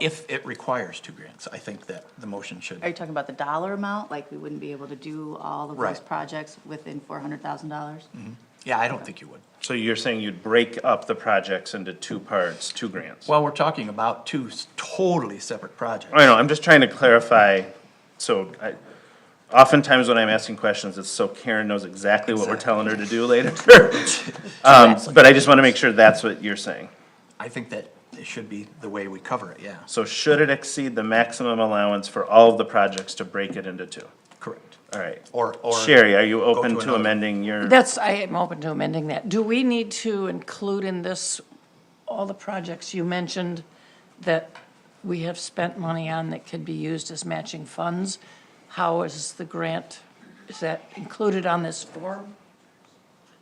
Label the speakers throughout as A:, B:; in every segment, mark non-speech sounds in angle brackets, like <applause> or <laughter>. A: if it requires two grants, I think that the motion should.
B: Are you talking about the dollar amount? Like, we wouldn't be able to do all of those
A: Right.
B: projects within four hundred thousand dollars?
A: Yeah, I don't think you would.
C: So you're saying you'd break up the projects into two parts, two grants?
A: Well, we're talking about two s- totally separate projects.
C: I know, I'm just trying to clarify, so I, oftentimes when I'm asking questions, it's so Karen knows exactly what we're telling her to
A: <laughs>
C: do later. <laughs> Um, but I just wanna make sure that's what you're saying.
A: I think that it should be the way we cover it, yeah.
C: So should it exceed the maximum allowance for all of the projects to break it into two?
A: Correct.
C: All right.
A: Or- or
C: Sherry, are you
A: go to
C: open to
A: another.
C: amending your,
D: That's, I am open to amending that. Do we need to include in this all the projects you mentioned that we have spent money on that could be used as matching funds? How is the grant, is that included on this form?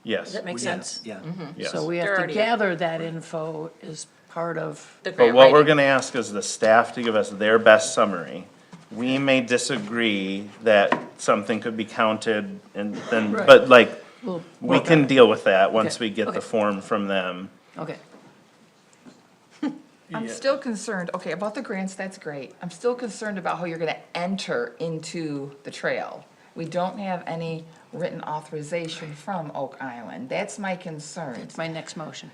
C: yes?
D: Does that make sense? Mm-hmm.
A: Yeah.
C: Yes.
D: So we
E: They're
D: have to
E: already-
D: gather that info as part of,
E: The
C: But
E: grant
C: what we're
E: writing.
C: gonna ask is the staff to give us their best summary. We may disagree that something could be counted and then,
D: Right.
C: but like,
D: We'll
C: we
D: work
C: can deal with that once
D: Okay,
C: we get the
D: okay.
C: form from them.
D: okay.
F: I'm still concerned, okay, about the grants, that's great. I'm still concerned about how you're gonna enter into the trail. We don't have any written authorization from Oak Island. That's my concern.
D: It's my next motion.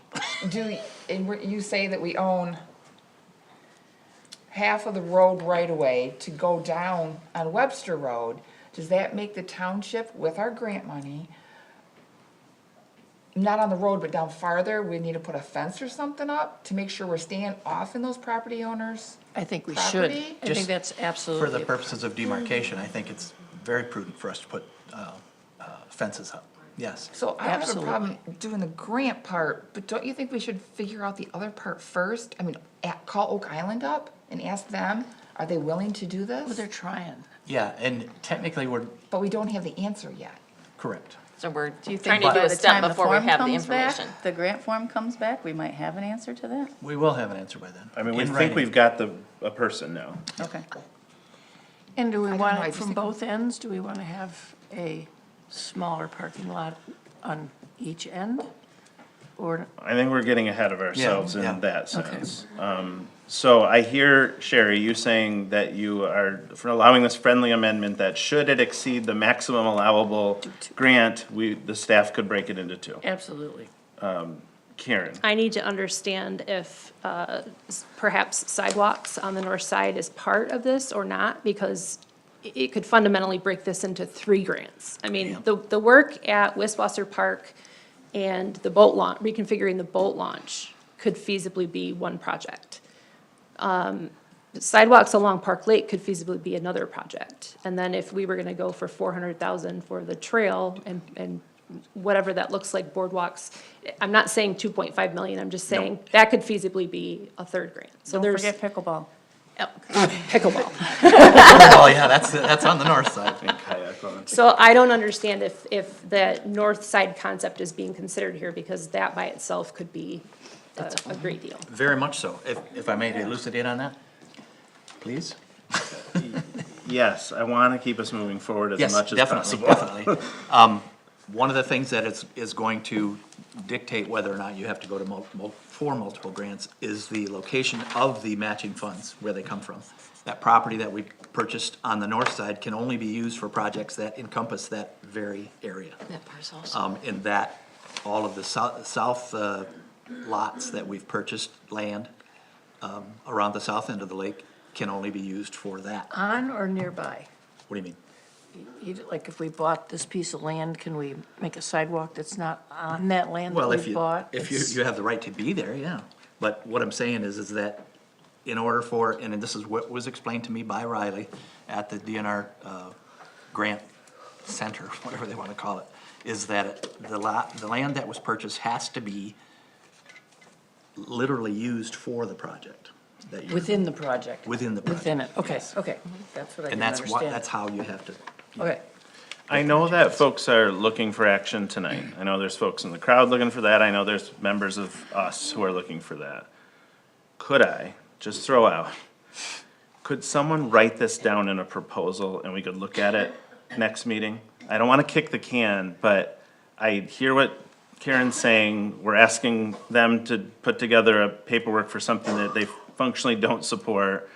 F: Do, and we're- you say that we own half of the road right away to go down on Webster Road. Does that make the township with our grant money, not on the road, but down farther, we need to put a fence or something up to make sure we're staying off in those property owners?
D: I think we should. I
F: Property?
D: think
A: Just
D: that's
A: For the
D: absolutely,
A: purposes of demarcation, I think it's very prudent for us to put uh, uh, fences up, yes.
F: So I don't have a problem
D: Absolutely.
F: doing the grant part, but don't you think we should figure out the other part first? I mean, a- call Oak Island up and ask them, are they willing to do
D: Well,
F: this?
D: they're trying.
A: Yeah, and technically, we're,
F: But we don't have the answer yet.
A: correct.
E: So we're
B: Do you
E: trying
B: think
E: to do
B: by
E: a
B: the
E: step
B: time the
E: before
B: form
E: we have the
B: comes back,
E: information.
B: the grant form comes back, we might have an answer to that?
A: We will have an answer by then.
C: I mean, we
A: In
C: think
A: writing.
C: we've got the, a person now.
B: Okay.
D: And do we
F: don't know,
D: want it
F: I just
D: from
F: think-
D: both ends? Do we want to have a smaller parking lot on each end? Or,
C: I think we're getting ahead of ourselves
A: yeah.
C: in that sense. Um, so I hear, Sherry, you saying that you are for allowing this friendly amendment that should it exceed the maximum allowable grant, we, the staff could break it into two.
D: absolutely.
C: Karen,
G: I need to understand if uh, s- perhaps sidewalks on the north side is part of this or not, because i- it could fundamentally break this into three grants. I mean, the, the work at Wiswasser Park and the boat launch, reconfiguring the boat launch could feasibly be one project. Um, Sidewalks along Park Lake could feasibly be another project. And then if we were gonna go for four hundred thousand for the trail and, and whatever that looks like, boardwalks, I'm not saying two point five million, I'm just saying that could feasibly be a third grant. So
B: Don't
G: there's
B: forget pickleball.
G: Oh, pickleball.
A: Oh, yeah, that's, that's on the north side.
C: kayak launch.
G: So I don't understand if, if the north side concept is being considered here, because that by itself could be a, a great deal.
A: Very much so. If, if I may elucidate on that, please?
C: Yes, I want to keep us moving forward as
A: Yes,
C: much as
A: definitely,
C: possible.
A: definitely.
C: <laughs>
A: Um, One of the things that is, is going to dictate whether or not you have to go to multiple, for multiple grants is the location of the matching funds, where they come from. That property that we purchased on the north side can only be used for projects that encompass that very area.
E: That part's also-
A: Um, in that, all of the south, south uh, lots that we've purchased, land, um, around the south end of the lake can only be used for that.
D: On or nearby?
A: What do you mean?
D: You- Like if we bought this piece of land, can we make a sidewalk that's not on that land that
A: Well, if
D: we
A: you,
D: bought?
A: if you,
D: It's-
A: you have the right to be there, yeah. But what I'm saying is, is that in order for, and this is what was explained to me by Riley at the DNR, uh, grant center, <laughs> whatever they wanna call it, is that the lot, the land that was purchased has to be literally used for the project. that you're-
D: Within the project?
A: Within the
D: Within it,
A: project,
D: okay,
A: yes.
D: okay. That's what I
A: And
D: didn't
A: that's what,
D: understand.
A: that's how you have to,
D: Okay,
C: I know that folks are looking for action tonight. I know there's folks in the crowd looking for that. I know there's members of us who are looking for that. Could I just throw out? Could someone write this down in a proposal and we could look at it next meeting? I don't want to kick the can, but I hear what Karen's saying. We're asking them to put together a paperwork for something that they functionally don't support